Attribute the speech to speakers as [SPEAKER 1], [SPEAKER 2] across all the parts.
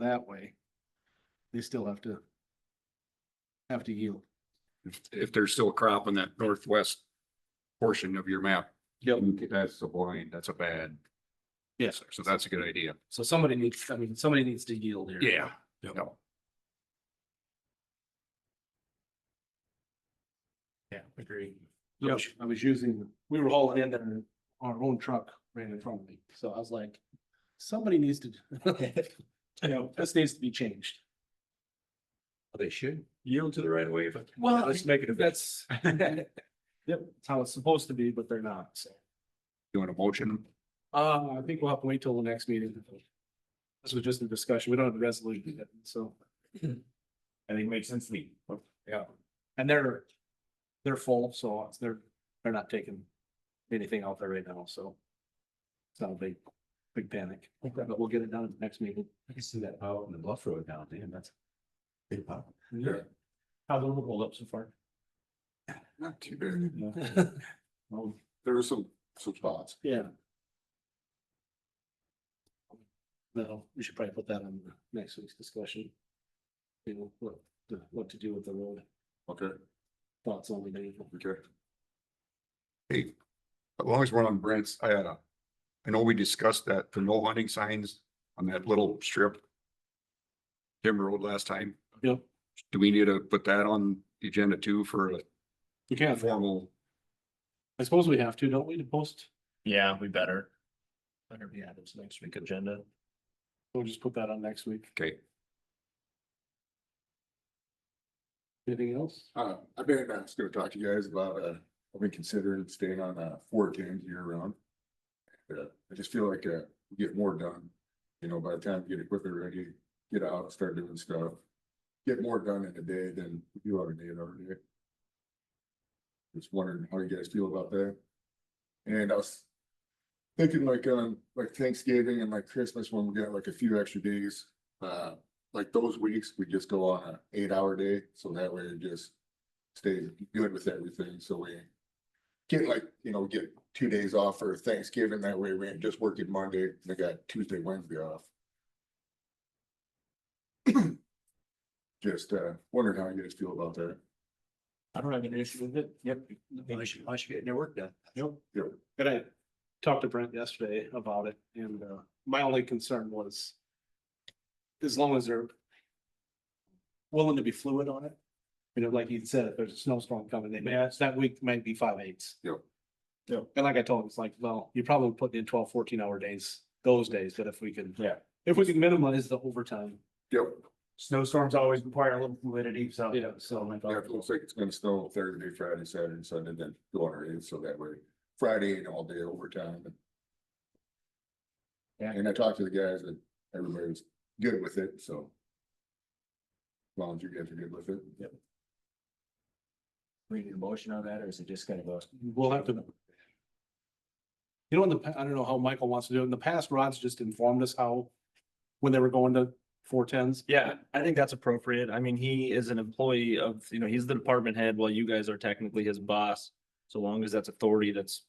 [SPEAKER 1] that way, they still have to have to yield.
[SPEAKER 2] if, if there's still a crop in that northwest portion of your map. That's a blind, that's a bad.
[SPEAKER 1] Yeah.
[SPEAKER 2] So that's a good idea.
[SPEAKER 1] So somebody needs, I mean, somebody needs to yield here.
[SPEAKER 2] Yeah.
[SPEAKER 1] Yep.
[SPEAKER 2] No.
[SPEAKER 1] Yeah, agree.
[SPEAKER 2] Yep.
[SPEAKER 1] I was using, we were hauling in there, our own truck ran in front of me, so I was like, somebody needs to, you know, this needs to be changed.
[SPEAKER 3] They should yield to the right of way, but
[SPEAKER 1] Well,
[SPEAKER 3] let's make it a bit.
[SPEAKER 1] that's, yep, that's how it's supposed to be, but they're not, so.
[SPEAKER 2] You want a motion?
[SPEAKER 1] Uh, I think we'll have to wait till the next meeting. This was just a discussion. We don't have a resolution yet, so.
[SPEAKER 3] I think makes sense to me.
[SPEAKER 1] Yeah. And they're, they're full, so it's- they're, they're not taking anything out there right now, so. It's not a big, big panic, but we'll get it done at the next meeting.
[SPEAKER 3] I can see that out in the bluff road down there, that's. Big pop.
[SPEAKER 1] Yeah.
[SPEAKER 3] How's it rolled up so far?
[SPEAKER 2] Not too bad.
[SPEAKER 3] Well,
[SPEAKER 2] There are some, some spots.
[SPEAKER 1] Yeah. No, we should probably put that on the next week's discussion. You know, what, to- what to do with the road,
[SPEAKER 2] Okay,
[SPEAKER 1] thoughts only, maybe.
[SPEAKER 2] okay. Hey, as long as we're on Brent's, I had a, I know we discussed that, the no hunting signs on that little strip. Timber Road last time.
[SPEAKER 1] Yep.
[SPEAKER 2] Do we need to put that on the agenda too for
[SPEAKER 1] You
[SPEAKER 2] a
[SPEAKER 1] can,
[SPEAKER 2] formal?
[SPEAKER 1] I suppose we have to, don't we, to post?
[SPEAKER 3] Yeah, we better. Better be added to next week agenda.
[SPEAKER 1] We'll just put that on next week.
[SPEAKER 2] Okay.
[SPEAKER 1] Anything else?
[SPEAKER 2] Uh, I've been, I was gonna talk to you guys about, uh, I've been considering staying on, uh, four teams year round. Uh, I just feel like, uh, we get more done, you know, by the time you get equipment ready, get out, start doing stuff. Get more done in a day than you do on a day and over day. Just wondering how you guys feel about that. And I was thinking like, um, like Thanksgiving and like Christmas, when we got like a few extra days, uh, like those weeks, we just go on an eight hour day, so that way it just stays good with everything, so we get like, you know, get two days off for Thanksgiving, that way we ain't just working Monday, they got Tuesday, Wednesday off. Just, uh, wondering how you guys feel about that.
[SPEAKER 3] I don't have an issue with it. Yep. I should, I should get their work done.
[SPEAKER 1] Yep.
[SPEAKER 2] Yep.
[SPEAKER 1] And I talked to Brent yesterday about it and uh, my only concern was as long as they're willing to be fluid on it. You know, like you said, if there's a snowstorm coming, they may, it's that week might be five eighths.
[SPEAKER 2] Yep.
[SPEAKER 1] Yep. And like I told him, it's like, well, you're probably putting in 12, 14 hour days, those days, but if we can.
[SPEAKER 3] Yeah.
[SPEAKER 1] If we can minimize the overtime.
[SPEAKER 2] Yep,
[SPEAKER 3] Snowstorms always require a little fluidity, so.
[SPEAKER 1] Yeah.
[SPEAKER 3] So. like-
[SPEAKER 2] yeah, it looks like it's gonna snow Thursday, Friday, Saturday, Sunday, then go on our end, so that way Friday and all day overtime.
[SPEAKER 3] Yeah.
[SPEAKER 2] And I talked to the guys and everybody's good with it, so. As long as you guys are good with it.
[SPEAKER 3] We need a motion on that, or is it just gonna go?
[SPEAKER 1] We'll have to. You know, in the, pa- I don't know how Michael wants to do it. In the past, Rod's just informed us how, when they were going to four tens.
[SPEAKER 4] Yeah, I think that's appropriate. I mean, he is an employee of, you know, he's the department head while you guys are technically his boss. So long as that's authority that's,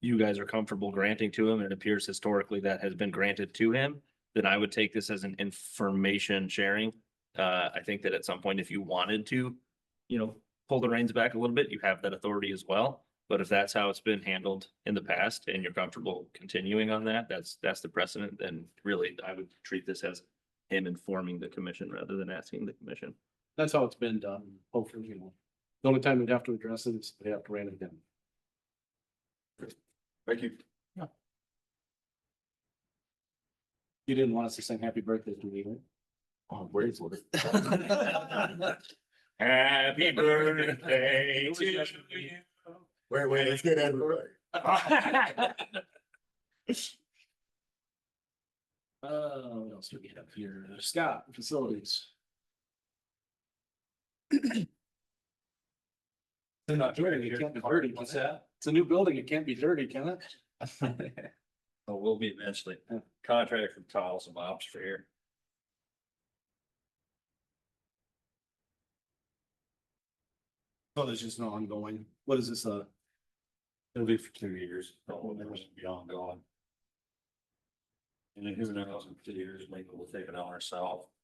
[SPEAKER 4] you guys are comfortable granting to him and it appears historically that has been granted to him, then I would take this as an information sharing. Uh, I think that at some point, if you wanted to, you know, pull the reins back a little bit, you have that authority as well. But if that's how it's been handled in the past and you're comfortable continuing on that, that's, that's the precedent, then really I would treat this as him informing the commission rather than asking the commission.
[SPEAKER 1] That's how it's been done, hopefully, you know. The only time we'd have to address it is we have to ran it down.
[SPEAKER 2] Thank you.
[SPEAKER 1] You didn't want us to sing happy birthday to me, right?
[SPEAKER 2] Oh, wait for it.
[SPEAKER 3] Happy birthday
[SPEAKER 1] to you.
[SPEAKER 2] Wait, wait, let's get everybody.
[SPEAKER 1] Uh, what else do we have here? Scott, facilities. They're not dirty. It can't be dirty. What's that? It's a new building. It can't be dirty, can it?
[SPEAKER 4] Oh, will be eventually.
[SPEAKER 1] Yeah.
[SPEAKER 4] Contract from Tiles and Ops for here.
[SPEAKER 1] Oh, there's just no ongoing. What is this, uh?
[SPEAKER 3] It'll be for two years,
[SPEAKER 4] Oh,
[SPEAKER 3] so it was beyond gone. And then who knows, in two years, maybe we'll take it on ourselves,